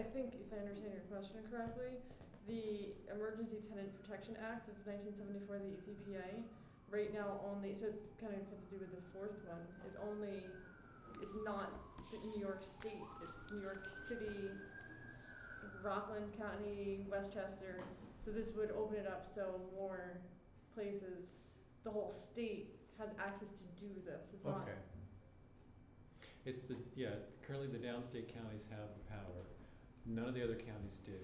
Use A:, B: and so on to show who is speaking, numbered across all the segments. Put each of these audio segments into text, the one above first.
A: think if I understand your question correctly, the Emergency Tenant Protection Act of nineteen seventy-four, the E ETPA, right now only, so it's kind of has to do with the fourth one, is only, it's not the New York State, it's New York City, Rockland County, Westchester, so this would open it up so more places, the whole state has access to do this, it's not,
B: Okay,
C: It's the, yeah, currently the downstate counties have the power. None of the other counties do.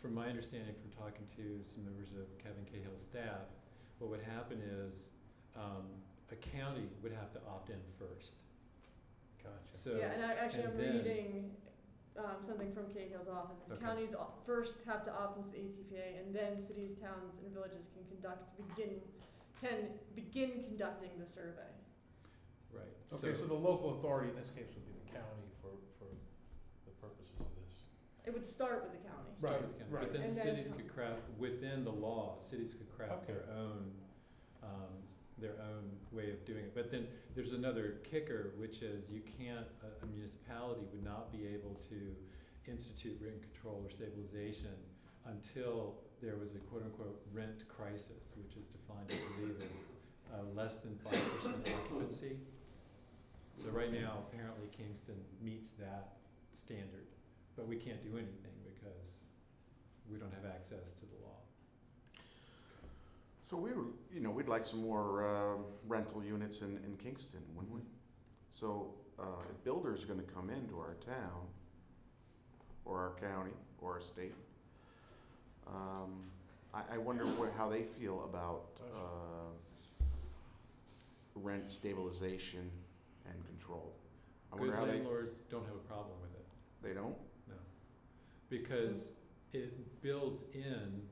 C: From my understanding, from talking to some members of Kevin Cahill's staff, what would happen is um, a county would have to opt in first.
B: gotcha.
C: So,
A: Yeah, and I actually
C: and
A: I'm
C: then-
A: reading um, something from Cahill's office. It's
B: Okay.
A: Counties o- first have to opt into the ATPA, and then cities, towns, and villages can conduct begin can begin conducting the survey.
C: right.
B: Okay, so the local authority in this case would be the county for, for the purposes of this.
A: It would start with the county.
C: start
B: Right,
C: with the county.
B: right.
C: But then
A: And then-
C: cities could craft, within the law, cities could craft
B: Okay.
C: their own, um, their own way of doing it. But then there's another kicker, which is you can't, a a municipality would not be able to institute rent control or stabilization until there was a quote-unquote rent crisis, which is defined, I believe, as uh, less than five percent occupancy. So right now, apparently Kingston meets that standard, but we can't do anything because we don't have access to the law.
D: So we were, you know, we'd like some more uh, rental units in, in Kingston, wouldn't we? So uh, if builders are going to come into our town, or our county, or our state, um, I, I wonder what, how they feel about uh, rent stabilization and control. I
C: Good
D: wonder how they,
C: landlords don't have a problem with it,
D: they don't?
C: no. Because it builds in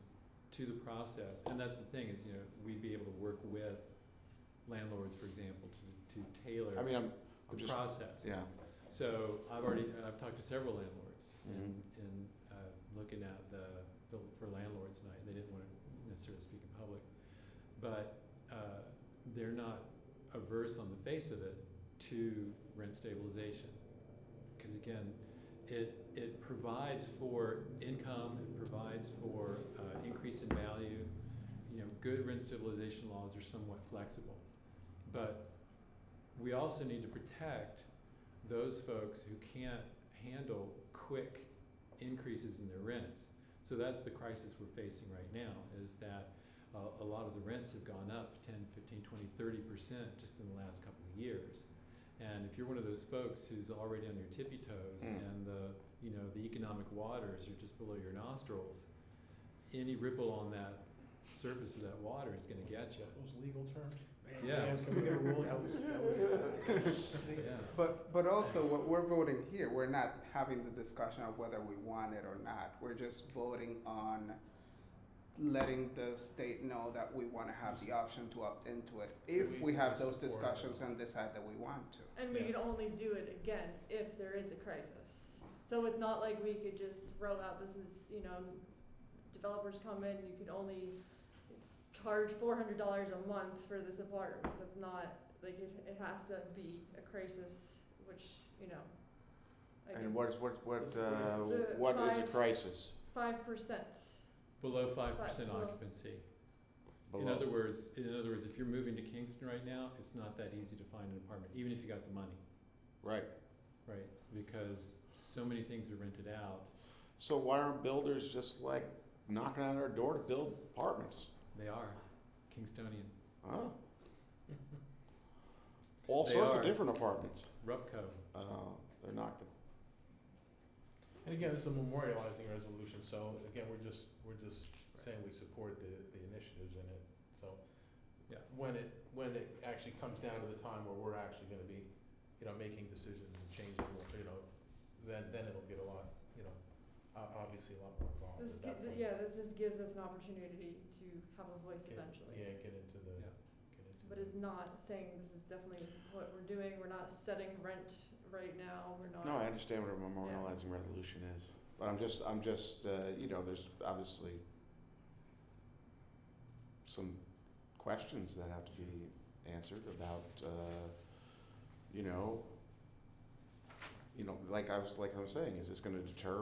C: to the process, and that's the thing, is, you know, we'd be able to work with landlords, for example, to, to tailor
D: I mean, I'm, I'm
C: the
D: just,
C: process.
D: yeah.
C: So I've already, I've talked to several landlords
D: Mhm.
C: and, and uh, looking at the bill for landlords tonight, they didn't want to necessarily speak in public. But uh, they're not averse on the face of it to rent stabilization. Because again, it, it provides for income, it provides for uh, increase in value. You know, good rent stabilization laws are somewhat flexible. But we also need to protect those folks who can't handle quick increases in their rents. So that's the crisis we're facing right now is that uh, a lot of the rents have gone up 10, 15, 20, 30% just in the last couple of years. And if you're one of those folks who's already on your tippy toes
D: Mm.
C: and the, you know, the economic waters are just below your nostrils, any ripple on that surface of that water is going to get you.
B: Those legal terms?
C: Yeah. Yeah,
B: Can we get a rule? That was, that was.
C: Yeah.
E: But, but also, what we're voting here, we're not having the discussion of whether we want it or not. We're just voting on letting the state know that we want to have the option to opt into it if we have those discussions and decide that we want to.
A: And we
C: Yeah.
A: could only do it again if there is a crisis. So it's not like we could just throw out this is you know, developers come in and you can only charge four hundred dollars a month for this apartment. That's not like it. It has to be a crisis, which you know. I
D: And what is, what, what, uh,
A: The
D: what is a
A: five-
D: crisis?
A: Five percent.
C: Below 5%
A: Below.
C: occupancy. In
D: below?
C: other words, in other words, if you're moving to Kingston right now, it's not that easy to find an apartment, even if you got the money,
D: Right.
C: right? It's because so many things are rented out.
D: So why aren't builders just like knocking on our door to build apartments?
C: They are Kingstonian,
D: Huh? All
C: They
D: sorts
C: are.
D: of different apartments.
C: Rupco.
D: Uh, they're knocking.
B: And again, it's a memorializing resolution, so again, we're just, we're just saying we support the, the initiatives in it, so.
C: Yeah.
B: When it, when it actually comes down to the time where we're actually gonna be, you know, making decisions and changing, you know, then, then it'll get a lot, you know, o- obviously a lot more
A: So
B: involved
A: This
B: at Oh, that
A: gi-
B: point.
A: yeah, this just gives us an opportunity to have a voice
B: Get-
A: eventually.
B: Yeah, get into the,
C: Yeah.
B: get into.
A: But
B: the-
A: it's not saying this is definitely what we're doing. We're not setting rent right now. We're not.
D: No, I understand what a memorializing resolution is, but I'm just, I'm just, uh, you know, there's obviously some questions that have to be answered about, uh, you know, you know, like I was, like I'm saying, is this going to deter